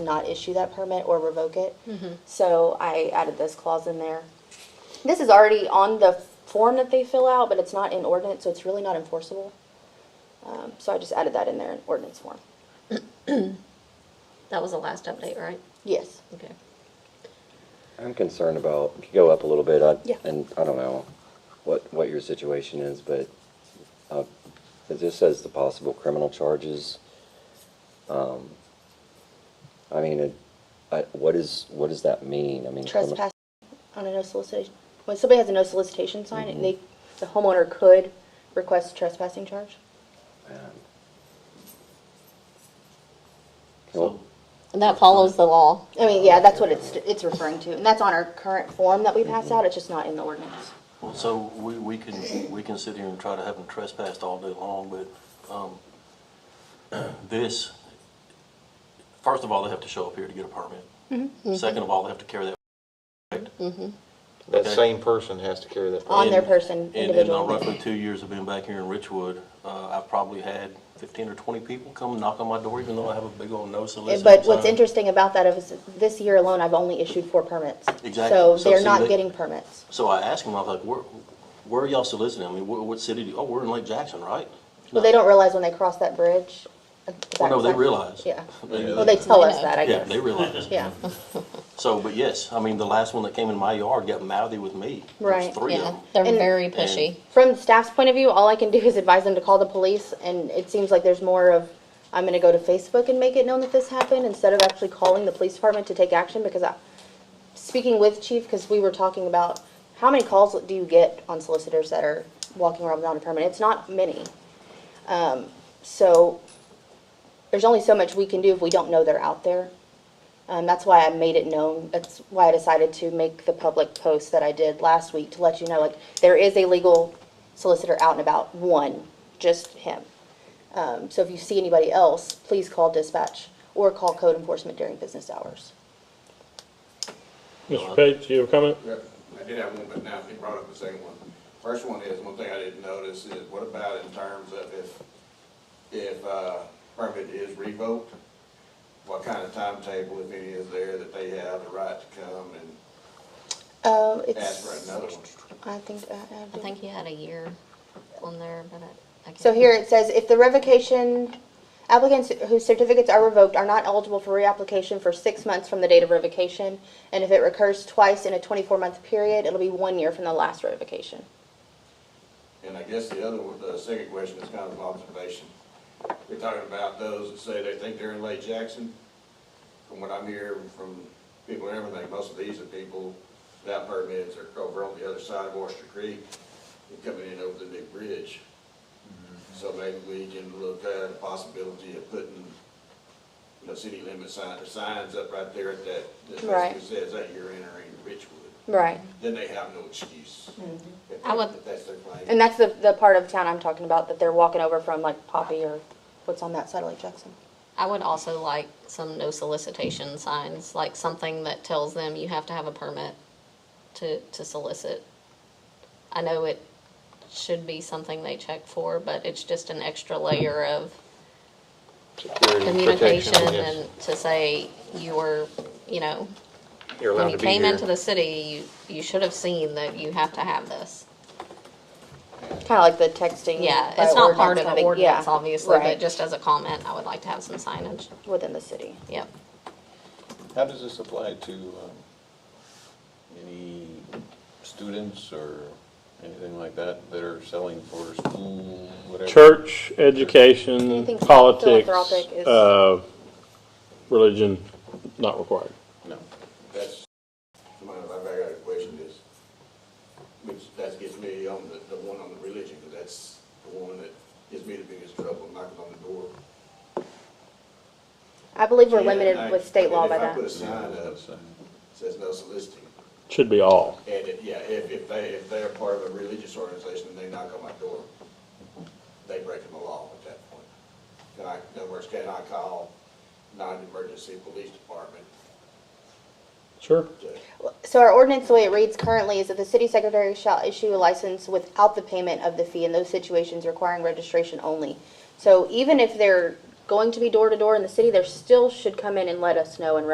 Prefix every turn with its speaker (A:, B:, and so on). A: not issue that permit or revoke it. So I added this clause in there. This is already on the form that they fill out, but it's not in ordinance, so it's really not enforceable. Um, So I just added that in there in ordinance form.
B: That was the last update, right?
A: Yes.
B: Okay.
C: I'm concerned about, if you go up a little bit, I-
A: Yeah.
C: and I don't know what, what your situation is, but uh, it just says the possible criminal charges. Um, I mean, it- I- what is, what does that mean? I mean, crimin-
A: Trespass on a no solicitation, when somebody has a no solicitation sign, they, the homeowner could request a trespassing charge.
C: Man.
D: So,
B: And that follows the law.
A: I mean, yeah, that's what it's, it's referring to, and that's on our current form that we pass out, it's just not in the ordinance.
D: well, so we, we can, we can sit here and try to have them trespassed all day long, but, um, this, first of all, they have to show up here to get a
A: Mm-hmm.
D: permit. Second of all, they have to carry that.
E: That
D: Okay.
E: same person has to carry that.
A: On their
D: And-
A: person,
D: and- And
A: individual.
D: uh, roughly two years of being back here in Richwood, uh, I've probably had fifteen or twenty people come knock on my door, even though I have a big old no solicitation
A: Eh, But what's
D: sign.
A: interesting about that is, this year alone, I've only issued four permits.
D: Exactly.
A: So
D: So
A: they're
D: see,
A: not
D: they-
A: getting permits.
D: So I asked him, I was like, where, where are y'all soliciting? I mean, what, what city do, you- oh, we're in Lake Jackson, right?
A: Well, they don't realize when they cross that bridge.
D: Well, Oh, no, they realize.
A: Yeah.
D: They-
A: Well, they tell us that, I
D: Yeah,
A: guess.
D: they realize.
A: Yeah.
D: So, but yes, I mean, the last one that came in my yard got mouthy with me. There was
A: Right.
D: Three of
B: Yeah,
D: them.
B: they're
A: And-
B: very pushy.
A: From staff's point of view, all I can do is advise them to call the police, and it seems like there's more of, I'm gonna go to Facebook and make it known that this happened, instead of actually calling the police department to take action, because I, speaking with chief, because we were talking about, how many calls do you get on solicitors that are walking around without a permit? It's not many. Um, So, there's only so much we can do if we don't know they're out there. Um, that's why I made it known. That's why I decided to make the public post that I did last week to let you know, like, there is a legal solicitor out and about, one, just him. Um, so if you see anybody else, please call dispatch or call code enforcement during business hours.
F: Mr. Page, you have a comment?
G: Yep, I did have one, but now he brought up the same one. First one is, one thing I didn't notice is, what about in terms of if, if, uh, permit is revoked? What kind of timetable, if any, is there that they have the right to come and
A: Um,
G: ask
A: it's,
G: for another one?
A: I think, uh, I, I
B: I
A: do.
B: think he had a year on there, but I, I can't.
A: So here it says, if the revocation, applicants whose certificates are revoked are not eligible for reapplication for six months from the date of revocation, and if it recurs twice in a 24-month period, it'll be one year from the last revocation.
G: And I guess the other one, the second question is kind of an observation. We're talking about those that say they think they're in Lake Jackson. From what I'm hearing from people and everything, most of these are people without permits or over on the other side of Oyster Creek and coming in over the new bridge. So maybe we can look at the possibility of putting, you know, city limit signs, signs up right there at that, that
A: Right.
G: basically says that you're entering Richwood.
A: Right.
G: Then they have no excuse. If
B: I would-
G: if that's their claim.
A: And that's the, the part of town I'm talking about, that they're walking over from like Poppy or what's on that side of Lake Jackson.
B: I would also like some no solicitation signs, like something that tells them you have to have a permit to, to solicit. I know it should be something they check for, but it's just an extra layer of
E: Security and protection,
B: communication
E: yes.
B: and to say you were, you know,
E: You're
B: when
E: allowed
B: you
E: to be
B: came
E: here.
B: into the city, you, you should have seen that you have to have this.
A: Kind of like the texting.
B: Yeah,
A: by
B: it's not part
A: ordinance
B: of
A: kind
B: the
A: yeah,
B: ordinance, obviously, but
A: right,
B: just as a comment, I would like to have some signage.
A: Within the city.
B: Yep.
E: How does this apply to um, any students or anything like that that are selling for school, whatever?
F: Church, education,
A: think so?
F: politics,
A: Philanthropic is-
F: uh, religion, not required.
E: No.
G: That's, my, my very other question is, which, that gets me on the, the one on the religion, because that's the one that gives me the biggest trouble, knocking on the door.
A: I believe we're
G: Yeah,
A: limited
G: and I-
A: with state law by
G: and If I put a
A: that.
G: sign up,
E: So,
G: says no soliciting,
F: Should be all.
G: and if, yeah, if, if they, if they're part of a religious organization and they knock on my door, they breaking the law at that point. Can I, in other words, can I call non-emergency police department
F: Sure.
G: to
A: So our ordinance, the way it reads currently, is that the city secretary shall issue a license without the payment of the fee in those situations requiring registration only. So even if they're going to be door to door in the city, there still should come in and let us know and